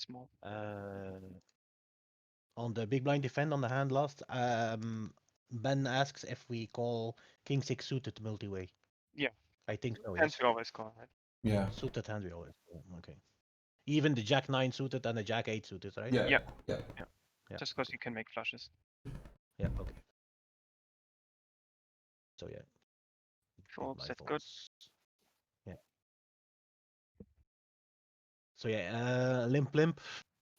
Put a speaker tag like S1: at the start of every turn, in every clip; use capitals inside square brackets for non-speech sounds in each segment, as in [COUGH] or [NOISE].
S1: small.
S2: Uh, on the big blind defend on the hand last, um, Ben asks if we call king six suited multi-way.
S1: Yeah.
S2: I think so.
S1: Hence
S2: Yes.
S1: we always call, right?
S3: Yeah.
S2: Suited hand we always. call, Okay. Even the jack nine suited and the jack eight suited, right?
S3: Yeah.
S1: Yeah.
S3: Yeah.
S2: Yeah.
S1: Just because you can make flushes.
S2: Yeah. Okay. So yeah. big
S1: Folds,
S2: blind
S1: that's good.
S2: folds. Yeah. So yeah, uh, limp limp,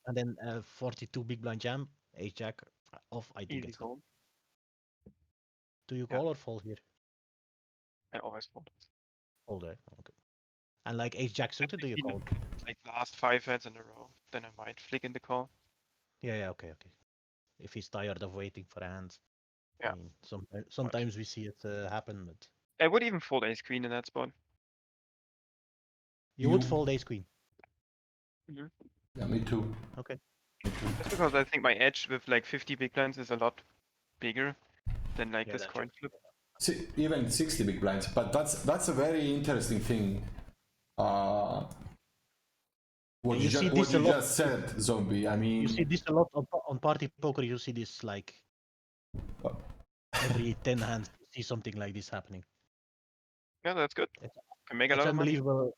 S2: and then uh, forty-two big blind jam, ace jack uh, off. I think
S1: Easy
S2: it's good.
S1: call.
S2: Do you
S1: Yeah.
S2: call or fold here?
S1: I always fold.
S2: Fold, right? Okay. And like ace jack suited, do you
S1: you know-
S2: call?
S1: Like last five hands in a row, then I might flick in the call.
S2: Yeah, yeah, okay, okay. If he's tired of waiting for a hand.
S1: Yeah.
S2: I mean, sometimes sometimes we see it uh, happen, but
S1: I would even fold ace queen in that spot.
S2: you, would
S3: You-
S2: fold ace queen.
S3: Yeah. Me too.
S2: Okay.
S3: Me too.
S1: That's because I think my edge with like 50 big blinds is a lot bigger than like
S2: Yeah,
S1: this
S2: that's
S1: coin flip.
S3: Si- even 60 big blinds but that's that's a very interesting thing uh what
S2: And you
S3: you, ju-
S2: see
S3: what
S2: this a
S3: you
S2: lot.
S3: just said zombie i mean
S2: You see this a lot on, pa- on party poker. You see this like
S1: Oh.
S3: Uh,
S2: every ten hands. You see something like this happening.
S1: Yeah, that's good.
S2: It's-
S1: Can make a
S2: It's
S1: lot of money.
S2: unbelievable.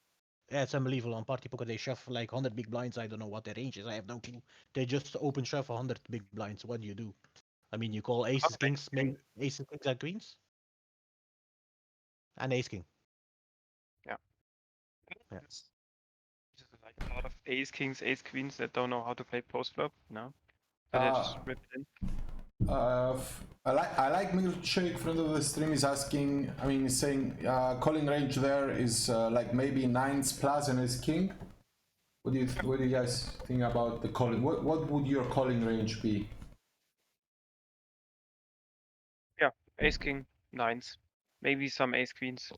S2: Yeah, it's unbelievable. On party poker, they shove like hundred big blinds. I don't know what their range is. I have no clue. They just open shove hundred big blinds. What do you do? I mean, you call aces,
S1: Something.
S2: kings, maybe aces, kings, and queens, and ace king. Yeah.
S1: It's just like a lot of ace kings, ace queens that don't know how to play post flop. No. So they just
S3: Ah.
S1: rip it in.
S3: uh f- i like i like milkshake friend of the stream is asking i mean he's saying uh calling range there is uh, like maybe nines plus and is king what do you what do you guys think about the calling what what would your calling range be
S1: Ace king, nines, maybe some ace queens,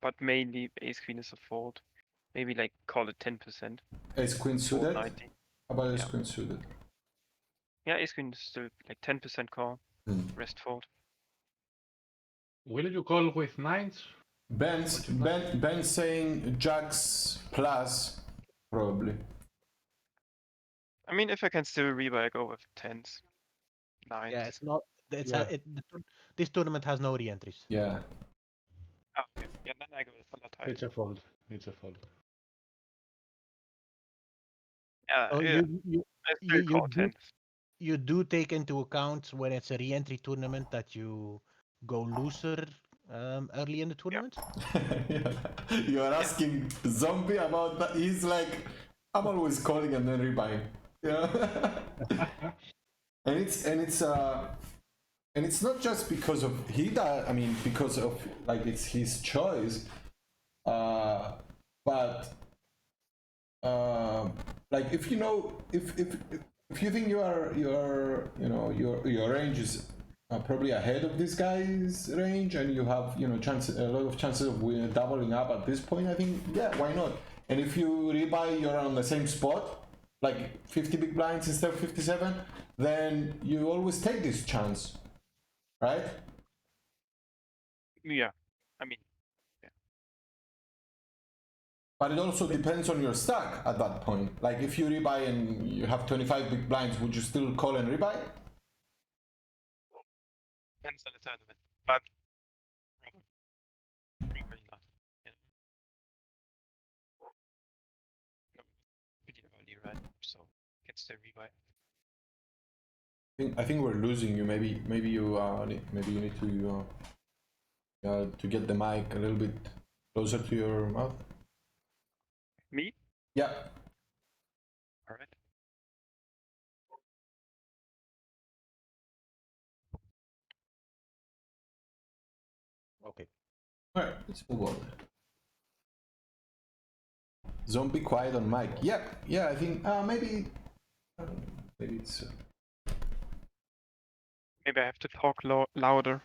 S1: but mainly ace queen is a fold. Maybe like call it 10%, fold
S3: ace queen suited How
S1: 90.
S3: about ace
S1: Yeah.
S3: queen suited
S1: Yeah, ace queen is still like 10% call,
S3: Hmm.
S1: rest fold.
S4: Will you call with nines?
S3: Ben's
S4: What you like?
S3: ben, Ben's saying Jack's plus probably.
S1: I mean, if I can still rebuy, I go with tens, nines.
S2: Yeah, it's not. It's
S3: Yeah.
S2: a, it, the tour- this tournament has no re-entries.
S3: Yeah. [LAUGHS]
S1: Ah, okay. yeah, then I go with a lot higher.
S4: It's a fold. It's a fold.
S1: Yeah,
S2: So
S1: Uh, yeah,
S2: Oh, you, you
S1: I still
S2: you- you
S1: call
S2: do-
S1: tens.
S2: you do take into account when it's a re-entry tournament that you go looser um, early in the tournament.
S3: you are asking zombie about that. He's like, I'm always calling and then rebuying. Yeah. [LAUGHS] and it's and it's uh and it's not just because of he does. I mean, because of like it's his choice. Uh, but um, like if you know if if if you think you are you are you know your your range is uh, probably ahead of this guy's range and you have you know chance a lot of chances of win- doubling up at this point i think yeah why not and if you rebuy you're on the same spot like 50 big blinds instead of 57 then you always take this chance right
S1: Yeah, I mean,
S3: But it also depends on your stack at that point. Like if you rebuy and you have 25 big blinds, would you still call and rebuy?
S1: depends on the tournament, but probably, probably not. Yeah. No, Pretty early, right? So it's the rebuy.
S3: I think, I think we're losing you. Maybe maybe you uh, ne- maybe you need to uh, uh, to get the mic a little bit closer to your mouth.
S1: Me?
S3: Yeah.
S1: All right.
S2: Okay.
S3: All right. Let's move on. Zombie quiet on mic. Yeah. Yeah. I think uh, maybe I don't know. maybe it's. Uh,
S1: Maybe I have to talk lo- louder.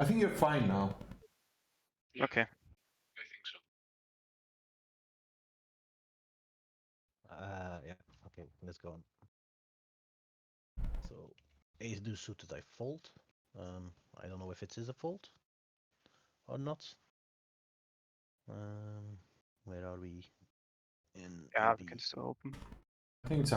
S3: I think you're fine now.
S1: Okay.
S4: I think so.
S2: Uh, yeah. Okay. Let's go on. So, ace do suited. I fold. Um, I don't know if it is a fold or not. Um, where are we? In
S1: Yeah, we
S2: the-
S1: can still open.
S3: I think it's